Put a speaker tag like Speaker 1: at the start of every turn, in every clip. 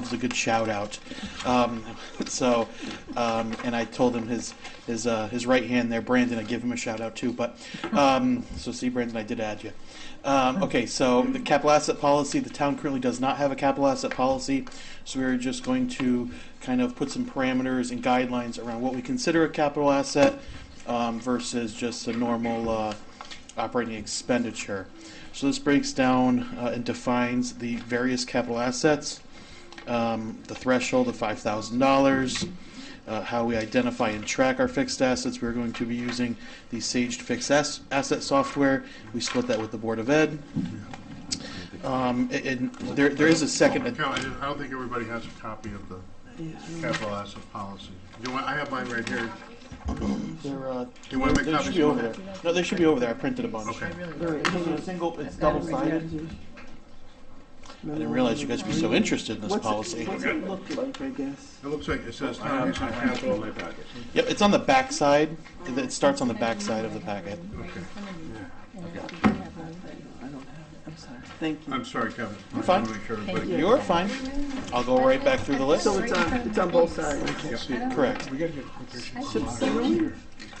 Speaker 1: was a good shout out. Um, so, um, and I told him his his uh, his right hand there, Brandon. I give him a shout out too. But um, so see, Brandon, I did add you. Um, okay, so the capital asset policy. The town currently does not have a capital asset policy, so we're just going to kind of put some parameters and guidelines around what we consider a capital asset um, versus just a normal. Uh, operating expenditure. So this breaks down uh, and defines the various capital assets, um, the threshold of five thousand dollars, uh, how we identify and track our fixed assets. We're going to be using the Sage Fixed Ass- Asset software. We split that with the Board of Ed. Um, a- and there, there is a second.
Speaker 2: Carol, I didn't- I don't think everybody has a copy of the capital asset policy. Do you want, I have mine right here.
Speaker 1: They're, uh,
Speaker 2: You wanna make
Speaker 1: they
Speaker 2: copies?
Speaker 1: should be over there. No, they should be over there. I printed a bunch.
Speaker 2: Okay.
Speaker 1: They're it's single. It's double sided. I didn't realize you guys would be so interested in this
Speaker 3: What's
Speaker 1: policy.
Speaker 3: it, what's it look like, I guess?
Speaker 2: It looks like it says town use of capital. Okay.
Speaker 1: Yep, it's on the back side. It it starts on the back side of the packet.
Speaker 3: I don't have it, I'm sorry, thank you.
Speaker 2: I'm sorry, Kevin. I
Speaker 1: fine.
Speaker 2: wanna make sure everybody-
Speaker 1: You're fine. I'll go right back through the list.
Speaker 3: So it's on, it's on both sides. Oh,
Speaker 1: Correct.
Speaker 3: Subsidiary?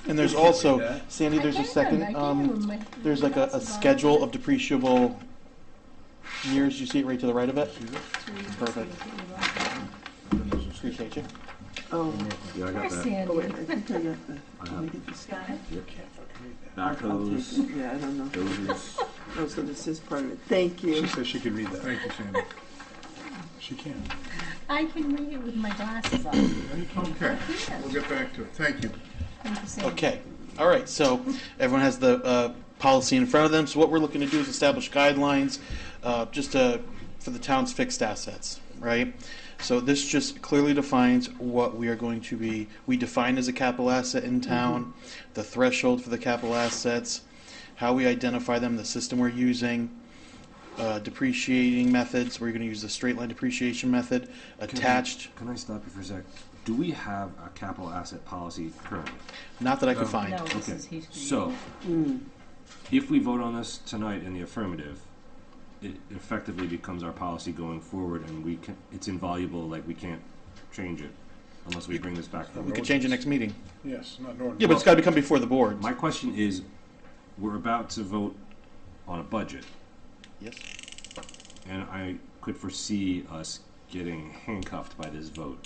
Speaker 1: And there's also, Sandy, there's a second, um, there's like a, a schedule of depreciable years. You see it right to the right of it? Perfect. Appreciate you.
Speaker 3: Oh,
Speaker 4: Yeah, I
Speaker 3: oh
Speaker 4: got that.
Speaker 3: wait,
Speaker 5: Sandy.
Speaker 3: I think I got the, let me get this.
Speaker 4: Back
Speaker 3: I'll take
Speaker 4: hose,
Speaker 3: it. Yeah, I don't know.
Speaker 4: hoses.
Speaker 3: Oh, so this is part of it, thank you.
Speaker 6: says she can read that.
Speaker 2: Thank you, Sandy.
Speaker 6: She can.
Speaker 5: I can read it with my glasses on.
Speaker 2: Okay, we'll get back to it. Thank you.
Speaker 5: Thank you, Sandy.
Speaker 1: Okay, all right, so everyone has the uh, policy in front of them, so what we're looking to do is establish guidelines uh, just uh, for the town's fixed assets, right? So this just clearly defines what we are going to be, we define as a capital asset in town, the threshold for the capital assets, how we identify them, the system we're using, uh, depreciating methods, we're going to use the straight line depreciation method, attached,
Speaker 4: Can I stop you for a sec? Do we have a capital asset policy currently?
Speaker 1: not that I could find.
Speaker 7: No, this
Speaker 4: Okay,
Speaker 7: is he's.
Speaker 4: so, mm. if we vote on this tonight in the affirmative, it effectively becomes our policy going forward and we can, it's invaluable, like we can't change it unless we bring this back. to the
Speaker 1: We could
Speaker 4: vote.
Speaker 1: change it next meeting.
Speaker 2: Yes, not an ordinance.
Speaker 1: Yeah, but it's got to come before the board.
Speaker 4: My question is, we're about to vote on a budget
Speaker 1: Yes.
Speaker 4: and I could foresee us getting handcuffed by this vote.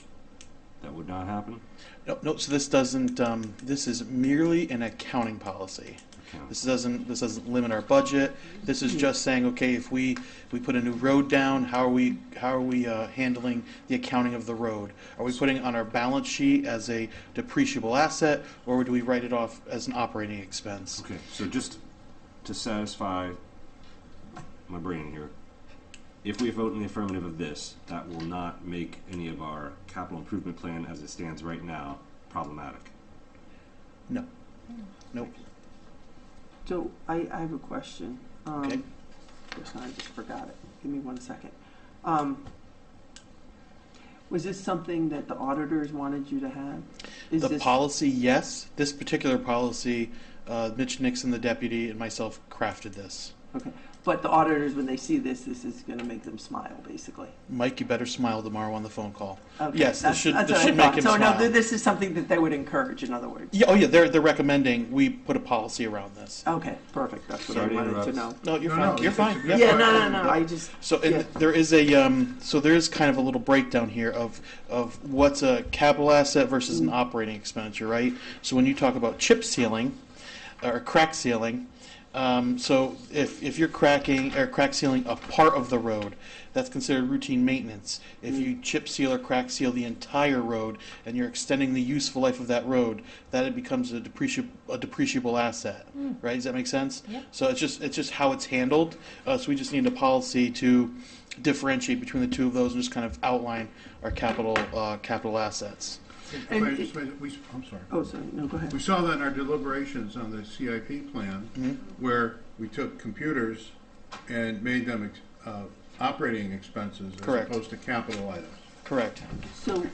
Speaker 4: That would not happen?
Speaker 1: No, no, so this doesn't, um, this is merely an accounting policy.
Speaker 4: Account.
Speaker 1: This doesn't, this doesn't limit our budget. This is just saying, okay, if we, we put a new road down, how are we, how are we, uh, handling the accounting of the road? Are we putting it on our balance sheet as a depreciable asset, or do we write it off as an operating expense?
Speaker 4: Okay, so just to satisfy my brain here, if we vote in the affirmative of this, that will not make any of our capital improvement plan as it stands right now problematic.
Speaker 1: No. Nope.
Speaker 3: So I, I have a question. Um,
Speaker 1: Okay.
Speaker 3: yes, I just forgot it. Give me one second. Um, was this something that the auditors wanted you to have? Is
Speaker 1: The
Speaker 3: this
Speaker 1: policy, yes. This particular policy, uh, Mitch Nixon, the deputy, and myself crafted this.
Speaker 3: okay? But the auditors, when they see this, this is going to make them smile, basically.
Speaker 1: Mike, you better smile tomorrow on the phone call.
Speaker 3: Okay,
Speaker 1: Yes, this
Speaker 3: that's-
Speaker 1: should,
Speaker 3: that's
Speaker 1: this
Speaker 3: what I
Speaker 1: should make
Speaker 3: thought.
Speaker 1: him
Speaker 3: so
Speaker 1: smile.
Speaker 3: no, th- this is something that they would encourage. In other words,
Speaker 1: Yeah, oh yeah, they're, they're recommending we put a policy around this.
Speaker 3: okay, perfect. That's what
Speaker 4: Sorry to
Speaker 3: I wanted to
Speaker 4: interrupt.
Speaker 3: know.
Speaker 1: No, you're
Speaker 2: No,
Speaker 1: fine,
Speaker 2: no,
Speaker 1: you're
Speaker 2: it's- it's
Speaker 1: fine.
Speaker 2: a
Speaker 1: Yep.
Speaker 2: good-
Speaker 3: Yeah, no, no, no. I just
Speaker 1: So, and
Speaker 3: yeah.
Speaker 1: there is a, um, so there is kind of a little breakdown here of, of what's a capital asset versus
Speaker 3: Mm-hmm.
Speaker 1: an operating expenditure, right? So when you talk about chip sealing, or crack sealing, um, so if, if you're cracking, or crack sealing a part of the road, that's considered routine maintenance.
Speaker 3: Mm.
Speaker 1: If you chip seal or crack seal the entire road, and you're extending the useful life of that road, that it becomes a depreciable, a depreciable asset,
Speaker 3: Hmm.
Speaker 1: right? Does that make sense?
Speaker 7: Yeah.
Speaker 1: So it's just, it's just how it's handled, uh, so we just need a policy to differentiate between the two of those and just kind of outline our capital, uh, capital assets.
Speaker 2: If
Speaker 3: And
Speaker 2: I
Speaker 3: it-
Speaker 2: just made- we- I'm sorry.
Speaker 3: oh, sorry. No, go ahead.
Speaker 2: We saw that in our deliberations on the CIP plan, where we took computers and made them ex- uh, operating expenses as
Speaker 1: Correct.
Speaker 2: opposed to capital items.
Speaker 1: Correct.
Speaker 3: So,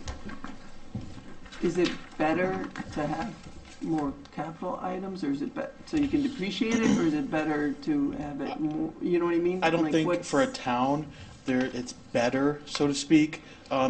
Speaker 3: is it better to have more capital items, or is it, be- so you can depreciate it, or is it better to have it more, you know what I mean?
Speaker 1: I don't
Speaker 3: Like,
Speaker 1: think
Speaker 3: what's-
Speaker 1: for a town, there, it's better, so to speak, um,